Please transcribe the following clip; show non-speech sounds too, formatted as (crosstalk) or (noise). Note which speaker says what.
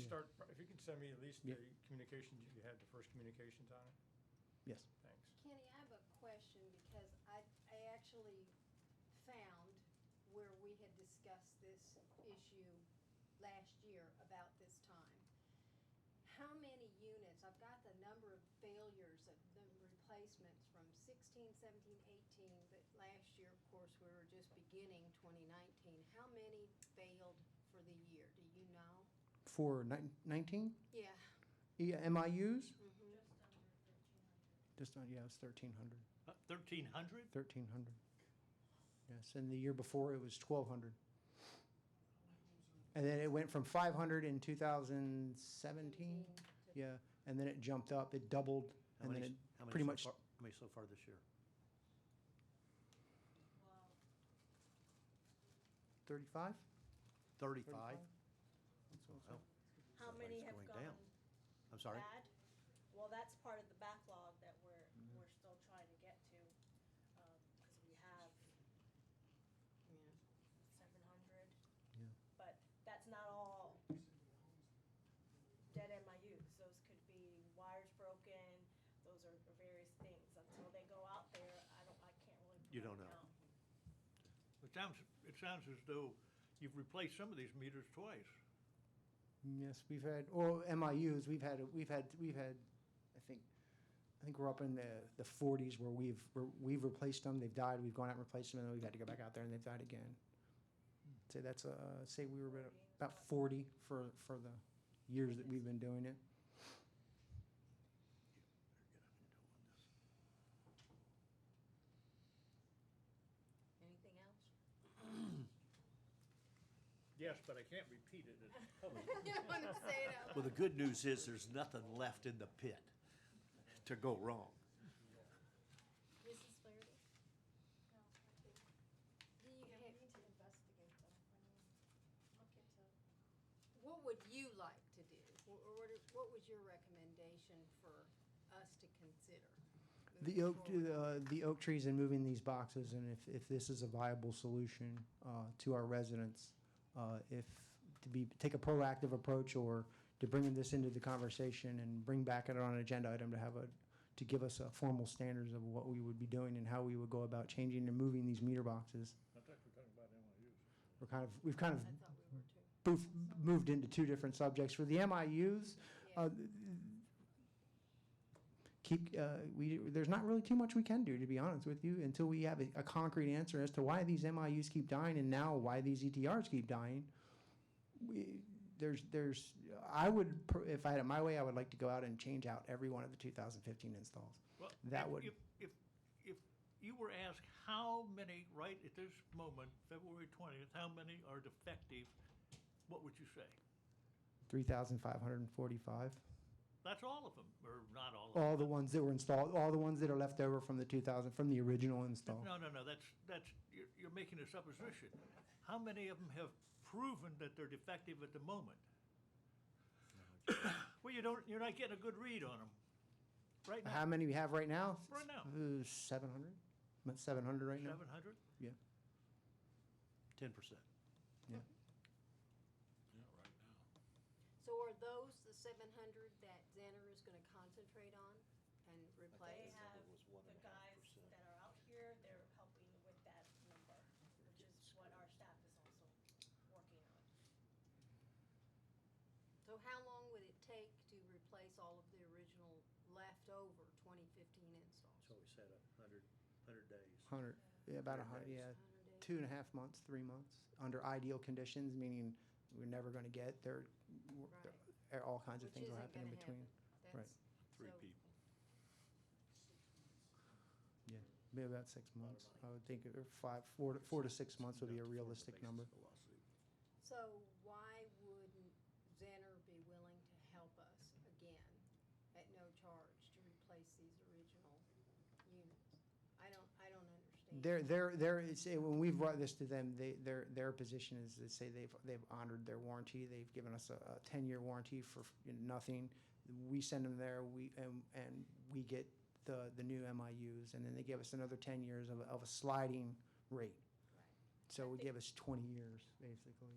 Speaker 1: start, if you could send me at least
Speaker 2: Yeah.
Speaker 1: the communications, you had the first communications on it,
Speaker 2: Yes.
Speaker 1: thanks.
Speaker 3: Kenny, I have a question because I, I actually found where we had discussed this issue last year about this time. How many units, I've got the number of failures of the replacements from 16, 17, 18. but last year, of course, we were just beginning twenty nineteen. How many failed for the year? Do you know?
Speaker 2: For nine- 19
Speaker 3: Yeah,
Speaker 2: E- MIUs?
Speaker 3: mhm.
Speaker 4: Just under thirteen hundred.
Speaker 2: Just, uh, yeah, it was 1,300,
Speaker 5: Uh, Thirteen hundred?
Speaker 2: 1,300. Yes, and the year before, it was 1,200. And then it went from 500 in 2017. Yeah, and then it jumped up, it doubled,
Speaker 5: How
Speaker 2: and then
Speaker 5: many-
Speaker 2: it
Speaker 5: how many
Speaker 2: pretty
Speaker 5: so
Speaker 2: much,
Speaker 5: far- How many so far this year?
Speaker 4: Well,
Speaker 2: 35?
Speaker 5: Thirty-five? Wow.
Speaker 6: How
Speaker 5: Sounds like
Speaker 6: many
Speaker 5: it's
Speaker 6: have
Speaker 5: going down.
Speaker 6: gone
Speaker 5: I'm sorry?
Speaker 6: bad? Well, that's part of the backlog that we're, we're still trying to get to, because we have
Speaker 3: Yeah.
Speaker 6: seven hundred,
Speaker 2: Yeah.
Speaker 6: but that's not all dead MIUs. Those could be wires broken, those are various things. Until they go out there, I don't, I can't really.
Speaker 5: You don't
Speaker 6: put a
Speaker 5: know.
Speaker 6: count.
Speaker 5: It sounds, it sounds as though you've replaced some of these meters twice.
Speaker 2: Yes, we've had, or MIUs, we've had, we've had, we've had, I think, I think we're up in the, the forties where we've, where we've replaced them, they've died, we've gone out and replaced them, and then we've had to go back out there and they've died again. Say that's, uh, say we were about- about forty for, for the years that we've been doing it.
Speaker 5: Better get up and go on this.
Speaker 3: Anything else? (laughs)
Speaker 5: Yes, but I can't repeat it. It's public.
Speaker 3: You don't wanna say it out loud.
Speaker 7: Well, the good news is there's nothing left in the pit to go wrong.
Speaker 3: Mrs. Flaherty?
Speaker 4: no, I think,
Speaker 3: Do you
Speaker 4: yeah, we
Speaker 3: have,
Speaker 4: need to investigate them, I mean, look into,
Speaker 3: what would you like to do? Wh- Or what, are- what was your recommendation for us to consider?
Speaker 2: The oak,
Speaker 3: moving
Speaker 2: uh,
Speaker 3: forward?
Speaker 2: the oak trees and moving these boxes, and if, if this is a viable solution, uh, to our residents, uh, if, to be, take a proactive approach or to bring this into the conversation and bring back it on an agenda item to have a, to give us a formal standards of what we would be doing and how we would go about changing and moving these meter boxes.
Speaker 5: I thought we were talking about MIUs.
Speaker 2: We're kind of, we've kind
Speaker 3: I
Speaker 2: of
Speaker 3: thought we were too.
Speaker 2: boof, moved into two different subjects. For the MIUs,
Speaker 3: Yeah.
Speaker 2: uh, keep, uh, we, there's not really too much we can do, to be honest with you, until we have a, a concrete answer as to why these MIUs keep dying and now why these ETRs keep dying. We, there's, there's, I would, pr- if I had it my way, I would like to go out and change out every one of the 2015 installs.
Speaker 5: Well,
Speaker 2: That
Speaker 5: if-
Speaker 2: would-
Speaker 5: If, if, if you were asked how many, right at this moment, February twentieth, how many are defective, what would you say?
Speaker 2: 3,545.
Speaker 5: That's all of them, or not all of them?
Speaker 2: All the ones that were installed, all the ones that are left over from the 2000, from the original install.
Speaker 5: No, no, no, that's, that's, you're, you're making a supposition. How many of them have proven that they're defective at the moment? (coughs) Well, you don't, you're not getting a good read on them. Right
Speaker 2: How
Speaker 5: now,
Speaker 2: many we have right now? Uh,
Speaker 5: Right now.
Speaker 2: Seven hundred? About seven hundred right now?
Speaker 5: seven hundred?
Speaker 2: Yeah,
Speaker 7: Ten percent.
Speaker 2: yeah.
Speaker 3: So are those the seven hundred that Xanner is gonna concentrate on and
Speaker 6: They
Speaker 3: replace?
Speaker 6: have
Speaker 7: was one
Speaker 6: the
Speaker 7: and a half
Speaker 6: guys
Speaker 7: percent.
Speaker 6: that are out here, they're helping with that number, which is what our staff is also working on.
Speaker 3: So how long would it take to replace all of the original leftover twenty fifteen installs?
Speaker 7: So we said a hundred, hundred days.
Speaker 2: Hundred, yeah, about a hundred, yeah.
Speaker 3: 100 days.
Speaker 2: Two and a half months, three months, under ideal conditions, meaning we're never gonna get there. we're-
Speaker 3: Right.
Speaker 2: there- All kinds of
Speaker 3: Which
Speaker 2: things will
Speaker 3: isn't
Speaker 2: happen in
Speaker 3: gonna
Speaker 2: between.
Speaker 3: That's-
Speaker 8: Three
Speaker 3: so-
Speaker 8: people.
Speaker 2: Yeah, maybe about six months. I would think, or five, four, to four to six months would be a realistic number.
Speaker 3: So why wouldn't Zenner be willing to help us again at no charge to replace these original units? I don't, I don't understand.
Speaker 2: Their, their, their, it's, when we've brought this to them, they, their, their position is to say they've, they've honored their warranty. They've given us a, a ten-year warranty for nothing. We send them there, we, and, and we get the, the new MIUs, and then they give us another ten years of, of a sliding rate.
Speaker 3: Right.
Speaker 2: So we give us twenty years, basically.